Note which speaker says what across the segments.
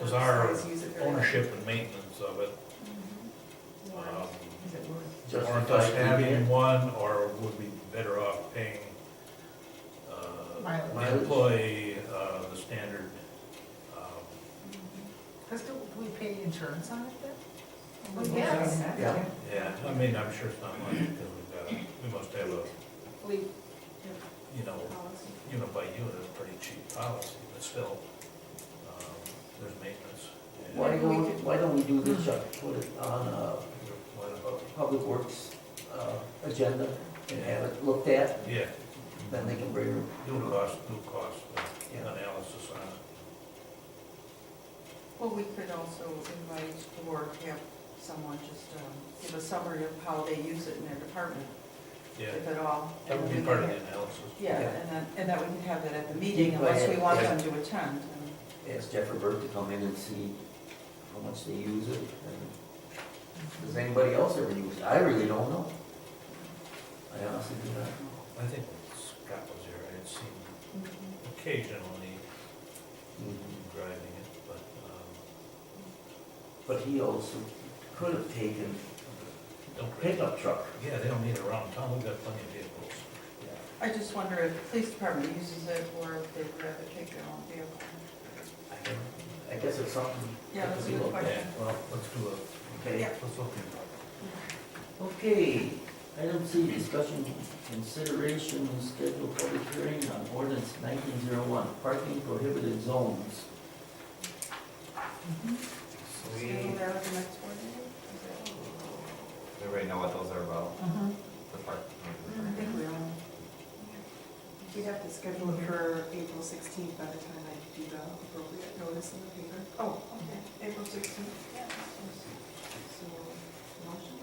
Speaker 1: was our
Speaker 2: Always use it very well.
Speaker 1: ownership and maintenance of it. um,
Speaker 2: Is it worth?
Speaker 1: Warrant us having one, or would we be better off paying uh,
Speaker 2: Mileage.
Speaker 1: my employee uh, the standard? um,
Speaker 2: Because do do we pay insurance on it then?
Speaker 3: Well, yes.
Speaker 4: Yeah.
Speaker 1: Yeah, I mean, I'm sure it's not much, because we've got, a- we must have a,
Speaker 3: Fleet
Speaker 1: you know,
Speaker 3: policy.
Speaker 1: unit by unit, a pretty cheap policy, but still, um, there's maintenance. and-
Speaker 4: Why don't, why don't we do this, Chuck, put it on a
Speaker 1: What about-
Speaker 4: public works, uh, agenda and have it looked at,
Speaker 1: Yeah,
Speaker 4: then they can bring it,
Speaker 1: do a cost, do a cost uh,
Speaker 4: yeah.
Speaker 1: analysis on it.
Speaker 3: Well, we could also invite or have someone just um, give a summary of how they use it in their department,
Speaker 1: Yeah,
Speaker 3: if at all.
Speaker 1: that would be part of the analysis.
Speaker 3: Yeah, and then, and that we can have that at the meeting unless we want them to attend. and-
Speaker 4: Ask Jeff or Bert to come in and see how much they use it, and does anybody else ever use it? I really don't know. I honestly do not know.
Speaker 1: I think when Scott was here, I had seen occasionally him driving it, but, um,
Speaker 4: But he also could have taken a
Speaker 1: don't, really-
Speaker 4: pickup truck.
Speaker 1: yeah, they don't need it around town, we've got plenty of vehicles.
Speaker 3: I just wonder if the police department uses it or if they'd rather take their own vehicle.
Speaker 4: I don't- I guess it's something.
Speaker 3: Yeah,
Speaker 4: that
Speaker 3: that's a
Speaker 4: could be
Speaker 3: good
Speaker 4: looked at.
Speaker 3: question.
Speaker 1: Well, let's do a,
Speaker 4: Okay.
Speaker 3: Yeah.
Speaker 1: let's look into
Speaker 4: Okay, item C, discussion, consideration, and schedule public hearing on ordinance nineteen zero one, parking prohibited zones.
Speaker 3: Schedule that at the next board meeting? Is that-
Speaker 5: Does everybody know what those are about? The park.
Speaker 3: I think we all.
Speaker 2: We'd Mm-hmm. have to schedule it for April sixteenth by the time I do the appropriate notice in the paper.
Speaker 3: Oh, okay, April sixteenth. So, motion?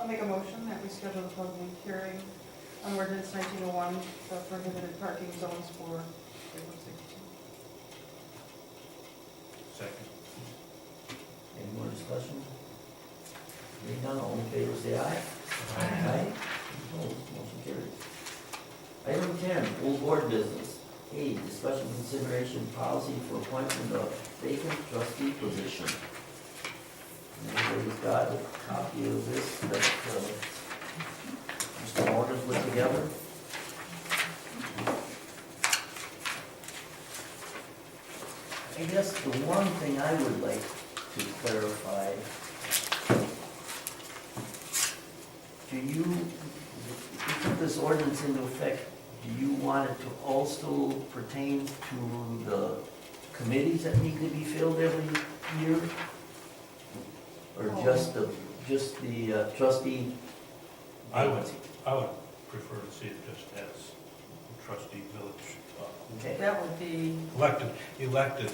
Speaker 3: I'll make a motion that we schedule the public hearing on ordinance nineteen oh one, the prohibited parking zones for April sixteenth.
Speaker 1: it. Second.
Speaker 4: Any more discussion? Hearing none, all in favor, say aye. Opposed, motion carries. Item ten, old board business. A, discussion consideration policy for appointment of vacant trustee position. And Everybody's got a copy of this that, uh, Mr. Morgan put together. I guess the one thing I would like to clarify Do you, if you put this ordinance into effect, do you want it to also pertain to the committees that need to be filled every year? Or just the, just the uh, trustee?
Speaker 1: I would, I would prefer to see it just as trustee village, uh,
Speaker 4: Okay,
Speaker 3: That would be,
Speaker 1: elected, elected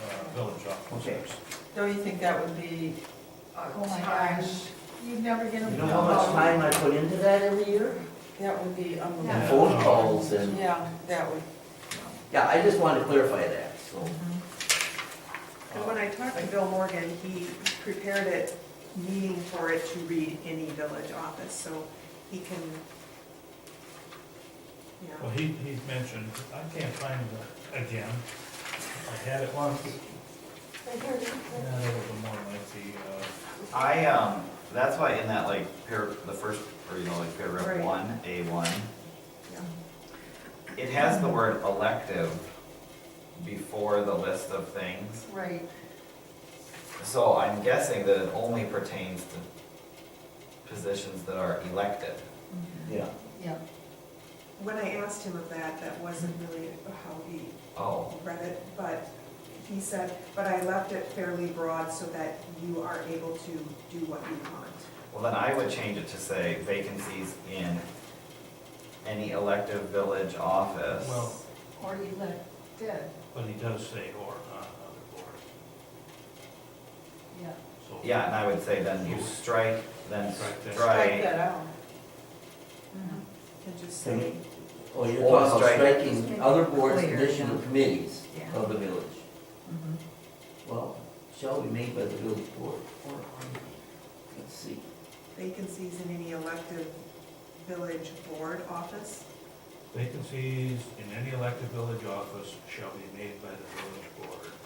Speaker 1: uh, village officers.
Speaker 3: don't you think that would be a
Speaker 2: Oh my
Speaker 3: time?
Speaker 2: gosh, you'd never get
Speaker 4: you
Speaker 2: them.
Speaker 4: know how much time I put into that every year?
Speaker 3: That would be
Speaker 4: And
Speaker 3: unbelievable.
Speaker 4: phone calls and,
Speaker 3: Yeah, that would.
Speaker 4: yeah, I just wanted to clarify that, so.
Speaker 6: And when I talked to Bill Morgan, he prepared it, meaning for it to read any village office, so he can, you know.
Speaker 1: Well, he, he mentioned, I can't find it again, I had it once. Yeah, that was a more lengthy, uh,
Speaker 5: I, um, that's why in that like par, the first, or you know, like
Speaker 6: Right.
Speaker 5: paragraph one, A one. It has the word elective before the list of things,
Speaker 3: Right.
Speaker 5: so I'm guessing that it only pertains to positions that are elected.
Speaker 4: Yeah,
Speaker 2: Yeah.
Speaker 6: When I asked him of that, that wasn't really how he
Speaker 5: Oh,
Speaker 6: read it, but he said, but I left it fairly broad so that you are able to do what you want.
Speaker 5: well then I would change it to say vacancies in any elective village office.
Speaker 1: Well,
Speaker 2: Or you let it dead,
Speaker 1: But he does say or on other boards,
Speaker 2: yeah.
Speaker 1: so.
Speaker 5: Yeah, and I would say then you strike, then
Speaker 1: Strike that.
Speaker 3: Strike
Speaker 5: strike,
Speaker 3: that out.
Speaker 6: And just
Speaker 4: Can
Speaker 6: say,
Speaker 4: oh, you're
Speaker 5: Or
Speaker 4: talking about Oh,
Speaker 5: strike-
Speaker 4: striking other boards,
Speaker 2: Clear,
Speaker 4: condition,
Speaker 2: yeah.
Speaker 4: or committees
Speaker 2: Yeah. Mm-hmm.
Speaker 4: of the village. Well, shall be made by the village board, or, on- let's see,
Speaker 6: vacancies in any elective village board office.
Speaker 1: Vacancies in any elected village office shall be made by the village board.